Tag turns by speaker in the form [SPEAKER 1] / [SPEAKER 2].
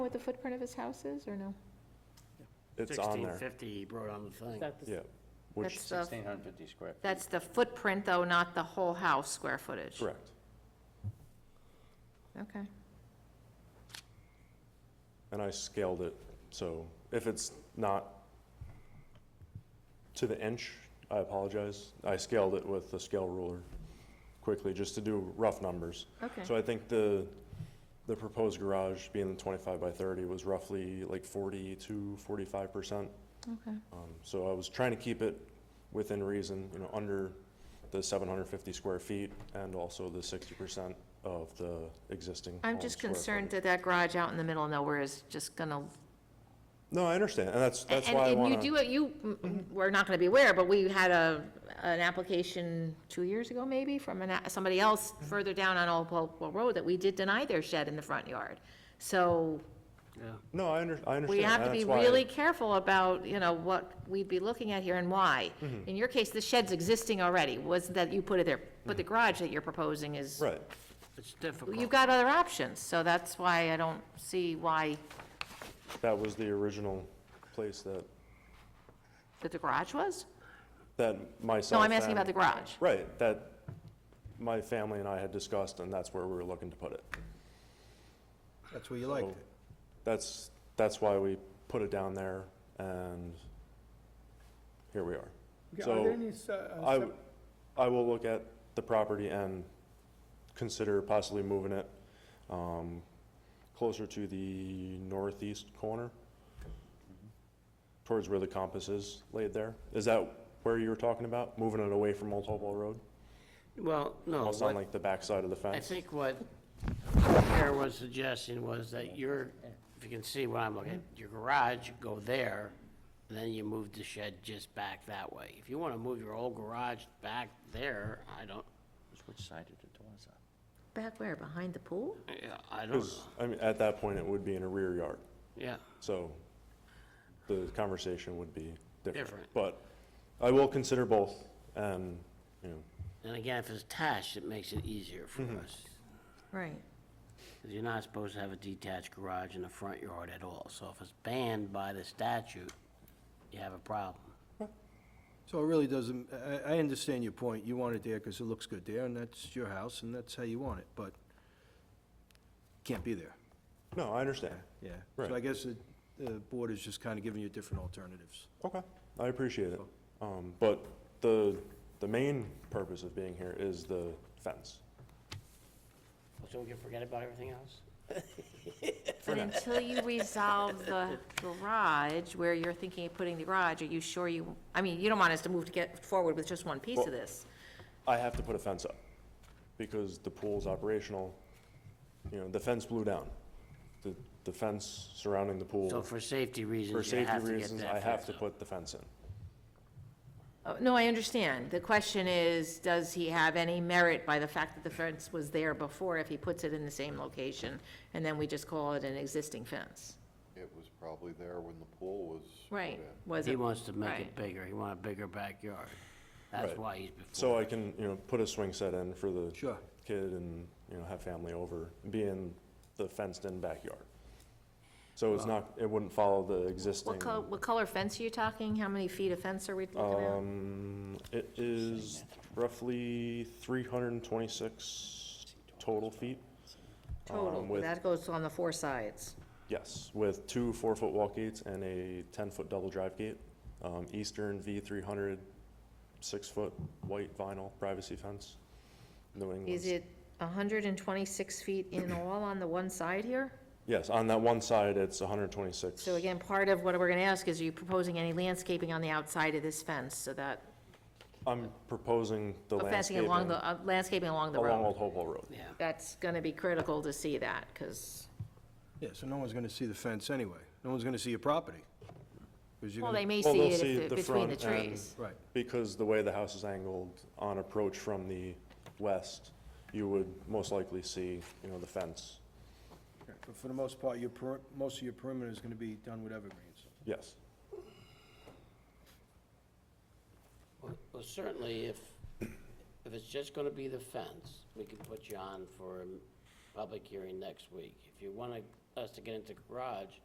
[SPEAKER 1] What the footprint of his house is, or no?
[SPEAKER 2] It's on there,
[SPEAKER 3] 1650 he brought on the thing.
[SPEAKER 4] That is-
[SPEAKER 2] yeah, which,
[SPEAKER 5] That's the,
[SPEAKER 6] 1,650 square. feet.
[SPEAKER 5] that's the footprint, though, not the whole house square footage.
[SPEAKER 2] correct.
[SPEAKER 5] Okay.
[SPEAKER 2] And I scaled it, so if it's not to the inch, I apologize. I scaled it with the scale ruler quickly, just to do rough numbers.
[SPEAKER 5] Okay.
[SPEAKER 2] So I think the, the proposed garage being the 25 by 30 was roughly like 40 to 45%.
[SPEAKER 5] Okay.
[SPEAKER 2] Um, So I was trying to keep it within reason, you know, under the 750 square feet and also the 60% of the existing.
[SPEAKER 5] I'm
[SPEAKER 2] home
[SPEAKER 5] just
[SPEAKER 2] square
[SPEAKER 5] concerned
[SPEAKER 2] footage.
[SPEAKER 5] that that garage out in the middle of nowhere is just gonna.
[SPEAKER 2] No, I understand, and that's, that's
[SPEAKER 5] and-
[SPEAKER 2] why I
[SPEAKER 5] and
[SPEAKER 2] want to.
[SPEAKER 5] You do it, you, m- m- we're not gonna be aware, but we had a, an application two years ago, maybe, from an, a- somebody else further down on Old Hopewell Road that we did deny their shed in the front yard. So
[SPEAKER 3] Yeah.
[SPEAKER 2] No, I under, I understand.
[SPEAKER 5] We have to
[SPEAKER 2] and
[SPEAKER 5] be
[SPEAKER 2] that's why-
[SPEAKER 5] really careful about, you know, what we'd be looking at here and why.
[SPEAKER 2] Mm-hmm.
[SPEAKER 5] In your case, the shed's existing already, was that you put it there, but
[SPEAKER 2] Mm-hmm.
[SPEAKER 5] the garage that you're proposing is.
[SPEAKER 2] Right,
[SPEAKER 3] It's difficult.
[SPEAKER 5] You've got other options, so that's why I don't see why
[SPEAKER 2] that was the original place that,
[SPEAKER 5] that the garage was?
[SPEAKER 2] that myself.
[SPEAKER 5] No, I'm asking about the
[SPEAKER 2] and-
[SPEAKER 5] garage.
[SPEAKER 2] Right, that my family and I had discussed, and that's where we were looking to put it.
[SPEAKER 7] That's where you liked it.
[SPEAKER 2] That's, that's why we put it down there, and here we are.
[SPEAKER 8] Okay, Are there
[SPEAKER 2] So
[SPEAKER 8] any, s- uh,
[SPEAKER 2] I,
[SPEAKER 8] sep-
[SPEAKER 2] I will look at the property and consider possibly moving it um, closer to the northeast corner, towards where the compass is laid there. Is that where you were talking about, moving it away from Old Hopewell Road?
[SPEAKER 3] Well, no,
[SPEAKER 2] Almost on
[SPEAKER 3] Uh, what-
[SPEAKER 2] like the backside of the fence?
[SPEAKER 3] I think what Kara was suggesting was that your, if you can see what I'm looking at, your garage, go there, and then you move the shed just back that way. If you want to move your old garage back there, I don't,
[SPEAKER 6] Which side did it was on?
[SPEAKER 5] Back where, behind the pool?
[SPEAKER 3] yeah, I don't know,
[SPEAKER 2] 'Cause, I mean, at that point, it would be in a rear yard,
[SPEAKER 3] yeah.
[SPEAKER 2] so the conversation would be different.
[SPEAKER 3] Different.
[SPEAKER 2] But I will consider both, and, you know,
[SPEAKER 3] And again, if it's attached, it makes it easier for
[SPEAKER 2] Mm-hmm.
[SPEAKER 3] us.
[SPEAKER 5] Right.
[SPEAKER 3] 'Cause You're not supposed to have a detached garage in the front yard at all, so if it's banned by the statute, you have a problem.
[SPEAKER 7] So it really doesn't, I, I understand your point. You want it there because it looks good there, and that's your house, and that's how you want it, but can't be there,
[SPEAKER 2] no, I understand.
[SPEAKER 7] yeah.
[SPEAKER 2] Right.
[SPEAKER 7] So I guess the, the board is just kind of giving you different alternatives.
[SPEAKER 2] Okay, I appreciate it. Um, But the, the main purpose of being here is the fence.
[SPEAKER 3] So we can forget about everything else?
[SPEAKER 5] But until you resolve the garage, where you're thinking of putting the garage, are you sure you, I mean, you don't want us to move to get forward with just one piece of
[SPEAKER 2] Well-
[SPEAKER 5] this?
[SPEAKER 2] I have to put a fence up because the pool's operational. You know, the fence blew down. The, the fence surrounding the
[SPEAKER 3] So
[SPEAKER 2] pool,
[SPEAKER 3] for safety
[SPEAKER 2] for
[SPEAKER 3] reasons, you
[SPEAKER 2] safety
[SPEAKER 3] have to get
[SPEAKER 2] reasons,
[SPEAKER 3] that
[SPEAKER 2] I have
[SPEAKER 3] fixed
[SPEAKER 2] to
[SPEAKER 3] up.
[SPEAKER 2] put the fence in.
[SPEAKER 5] Oh, No, I understand. The question is, does he have any merit by the fact that the fence was there before if he puts it in the same location? And then we just call it an existing fence?
[SPEAKER 9] It was probably there when the pool was. put
[SPEAKER 5] Right,
[SPEAKER 9] in.
[SPEAKER 5] was
[SPEAKER 3] He
[SPEAKER 5] it?
[SPEAKER 3] wants to make
[SPEAKER 5] right.
[SPEAKER 3] it bigger, he want a bigger backyard. That's
[SPEAKER 2] Right.
[SPEAKER 3] why he's before.
[SPEAKER 2] So I can, you know, put a swing set in for the
[SPEAKER 7] Sure.
[SPEAKER 2] kid and, you know, have family over, be in the fenced-in backyard. So it's not, it wouldn't follow the existing.
[SPEAKER 5] What color, what color fence are you talking? How many feet of fence are we looking at?
[SPEAKER 2] Um, it is roughly three hundred and twenty-six total feet.
[SPEAKER 5] Total,
[SPEAKER 2] um, with-
[SPEAKER 5] that goes on the four sides.
[SPEAKER 2] Yes, with two four-foot walk gates and a ten-foot double drive gate. Um, Eastern V three hundred, six-foot white vinyl privacy fence. New
[SPEAKER 5] Is
[SPEAKER 2] England.
[SPEAKER 5] it hundred and twenty-six feet in all on the one side here?
[SPEAKER 2] Yes, on that one side, it's hundred and twenty-six.
[SPEAKER 5] So again, part of what we're gonna ask is, are you proposing any landscaping on the outside of this fence so that,
[SPEAKER 2] I'm proposing the
[SPEAKER 5] uh, fencing
[SPEAKER 2] landscaping
[SPEAKER 5] along
[SPEAKER 2] along
[SPEAKER 5] the, uh, landscaping along the road?
[SPEAKER 2] Old Hopewell Road.
[SPEAKER 3] Yeah,
[SPEAKER 5] that's going to be critical to see that, because,
[SPEAKER 7] Yeah, so no one's gonna see the fence anyway. No one's gonna see your property. 'cause you're
[SPEAKER 5] well, they
[SPEAKER 7] gonna-
[SPEAKER 5] may
[SPEAKER 2] Well,
[SPEAKER 5] see
[SPEAKER 2] they'll
[SPEAKER 5] it
[SPEAKER 2] see
[SPEAKER 5] if
[SPEAKER 2] the
[SPEAKER 5] they're between the
[SPEAKER 2] front and-
[SPEAKER 5] trees.
[SPEAKER 7] Right.
[SPEAKER 2] Because the way the house is angled on approach from the west, you would most likely see, you know, the fence.
[SPEAKER 7] Okay, But for the most part, your, peri- most of your perimeter is gonna be done with evergreens.
[SPEAKER 2] Yes.
[SPEAKER 3] Well- well, certainly if, if it's just gonna be the fence, we can put you on for a public hearing next week. If you wanna us to get into the garage,